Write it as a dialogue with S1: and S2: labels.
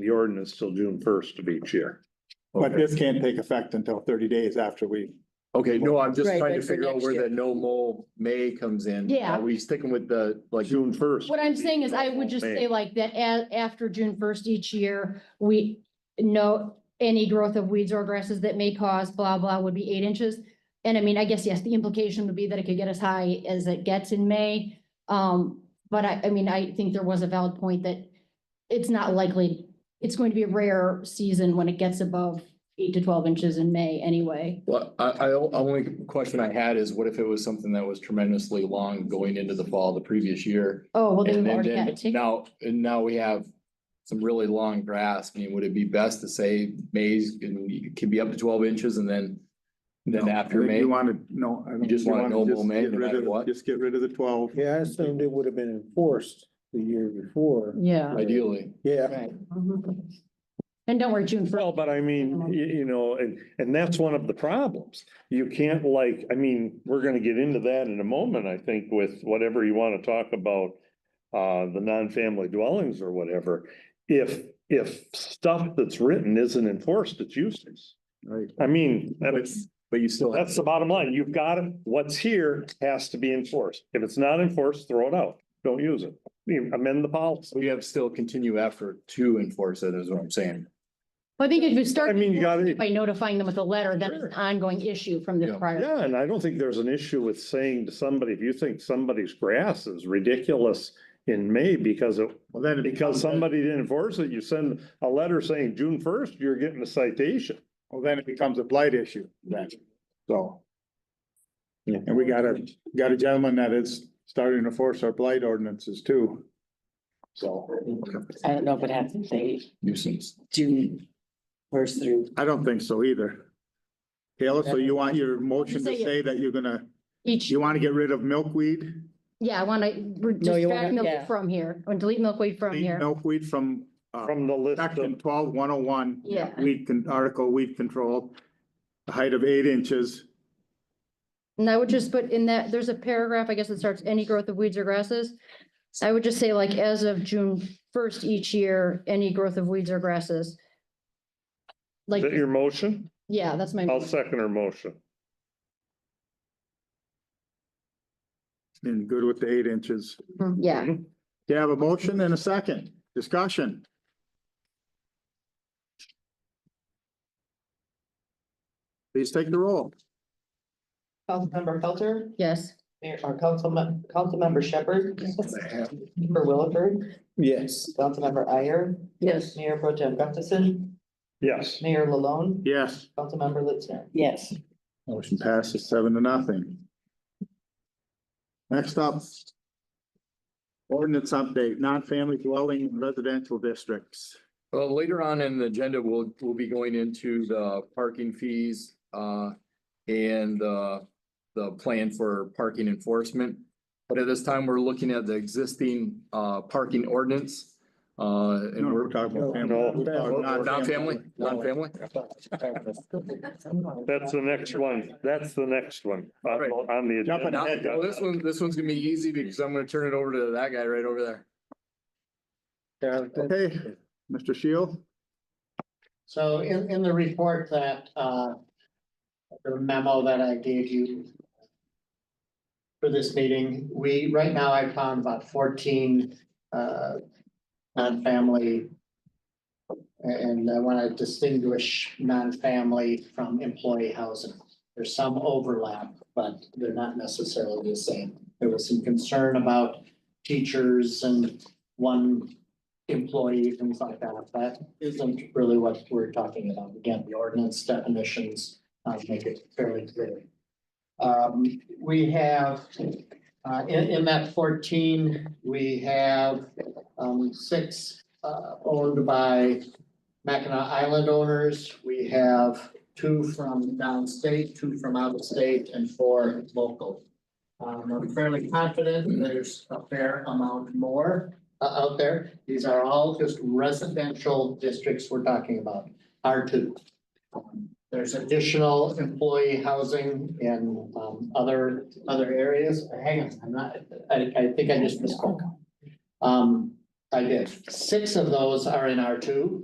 S1: the ordinance till June first of each year.
S2: But
S3: Okay.
S2: this can't take effect until thirty days after we,
S3: Okay, no, I'm just
S4: Right,
S3: trying to
S4: but for
S3: figure out
S4: next
S3: where
S4: year.
S3: the no mow May comes in.
S4: Yeah.
S3: Are we sticking with the, like,
S1: June first.
S4: What I'm saying is I would just say like that a- after June first each year, we know any growth of weeds or grasses that may cause blah, blah would be eight inches. And I mean, I guess, yes, the implication would be that it could get as high as it gets in May. Um, but I, I mean, I think there was a valid point that it's not likely, it's going to be a rare season when it gets above eight to twelve inches in May anyway.
S3: well, I, I, o- only question I had is what if it was something that was tremendously long going into the fall the previous year?
S4: Oh, well, then
S3: And
S4: we've
S3: then,
S4: already had
S3: then
S4: it taken.
S3: now, and now we have some really long grass. I mean, would it be best to say May's, can can be up to twelve inches and then, then
S2: No,
S3: after
S2: I think
S3: May?
S2: you wanted, no. I don't-
S3: just
S2: you
S3: want
S2: wanna
S3: no
S2: just
S3: mow man,
S2: get
S3: no
S2: rid
S3: matter
S2: of-
S3: what?
S2: Just get rid of the twelve.
S5: Yeah, I assumed it would have been enforced the year before.
S4: Yeah.
S3: Ideally,
S5: Yeah.
S4: Right. Mm-hmm. And don't worry, June first.
S6: Well, but I mean, you, you know, and, and that's one of the problems. You can't like, I mean, we're gonna get into that in a moment, I think, with whatever you wanna talk about. Uh, the non-family dwellings or whatever. If, if stuff that's written isn't enforced, it's useless.
S2: Right.
S6: I mean, that's,
S3: but you still have.
S6: that's the bottom line. You've got it. What's here has to be enforced. If it's not enforced, throw it out. Don't use it. Amend the policy.
S3: We have still continue effort to enforce it is what I'm saying.
S4: Well, I think if you start.
S6: I mean, you gotta-
S4: By notifying them with a letter, that's an
S6: Sure.
S4: ongoing issue from the
S3: Yeah.
S4: prior.
S6: Yeah, and I don't think there's an issue with saying to somebody, if you think somebody's grass is ridiculous in May because of,
S2: Well, then. it
S6: because
S2: becomes-
S6: somebody didn't enforce it, you send a letter saying June first, you're getting a citation.
S2: Well, then it becomes a blight issue then, so.
S6: Yeah.
S2: And we got a, got a gentleman that is starting to force our blight ordinances too. So
S7: I don't know if it has to say
S3: Nuisance.
S7: June first through,
S2: I don't think so either. Taylor, so you want your motion to
S4: Say it.
S2: say that you're gonna,
S4: Each,
S2: you want to get rid of milkweed?
S4: yeah, I want to distract
S7: wanna-
S4: milkweed
S7: yeah.
S4: from here, or delete milkweed from
S2: Leave
S4: here.
S2: Milkweed from, uh,
S6: From the list
S2: section
S6: of,
S2: twelve one oh one.
S4: Yeah.
S2: Weed can, article weed control, a height of eight inches.
S4: And I would just put in that, there's a paragraph, I guess, that starts any growth of weeds or grasses. I would just say like as of June first each year, any growth of weeds or grasses.
S6: is
S4: Like,
S6: that your motion?
S4: yeah, that's my,
S6: I'll second her motion.
S2: And good with the eight inches.
S4: yeah.
S2: You have a motion and a second. Discussion. Please take the roll.
S8: Councilmember Pelter,
S4: Yes,
S8: Mayor, or Councilman, Councilmember Shepherd. Member Williford,
S5: Yes.
S8: Councilmember Iyer,
S7: yes,
S8: Mayor Pro Tem Gustafson,
S6: Yes,
S8: Mayor Lalone,
S2: Yes.
S8: Councilmember Litzner.
S7: yes.
S2: Motion passes seven to nothing. Next up. Ordinance update, non-family dwelling in residential districts.
S3: Well, later on in the agenda, we'll, we'll be going into the parking fees, uh, and, uh, the plan for parking enforcement. But at this time, we're looking at the existing, uh, parking ordinance, uh, and we're.
S2: talking about family.
S6: No.
S2: We're talking
S3: Not family, not family?
S6: that's the next one. That's the next one on,
S3: Right.
S6: on the
S2: Jumping
S3: Now,
S2: ahead,
S3: well,
S6: agenda.
S3: this one, this one's gonna be easy because I'm gonna turn it over to that guy right over there.
S5: Yeah, that-
S2: Okay, Mr. Shield?
S9: So in, in the report that, uh, the memo that I gave you for this meeting, we, right now I found about fourteen, uh, non-family. And I want to distinguish non-family from employee housing. There's some overlap, but they're not necessarily the same. There was some concern about teachers and one employee, things like that. That isn't um, really what we're talking about. Again, the ordinance definitions uh, make it fairly clear. Um, we have, uh, in, in that fourteen, we have, um, six, uh, owned by Mackinac Island owners. We have two from downstate, two from out of state, and four local. Um, I'm fairly confident there's a fair amount more uh, out there. These are all just residential districts we're talking about, R two. There's additional employee housing in um other, other areas. Hang on, I'm not, I, I think I just misspoke. Um, I did. Six of those are in R two.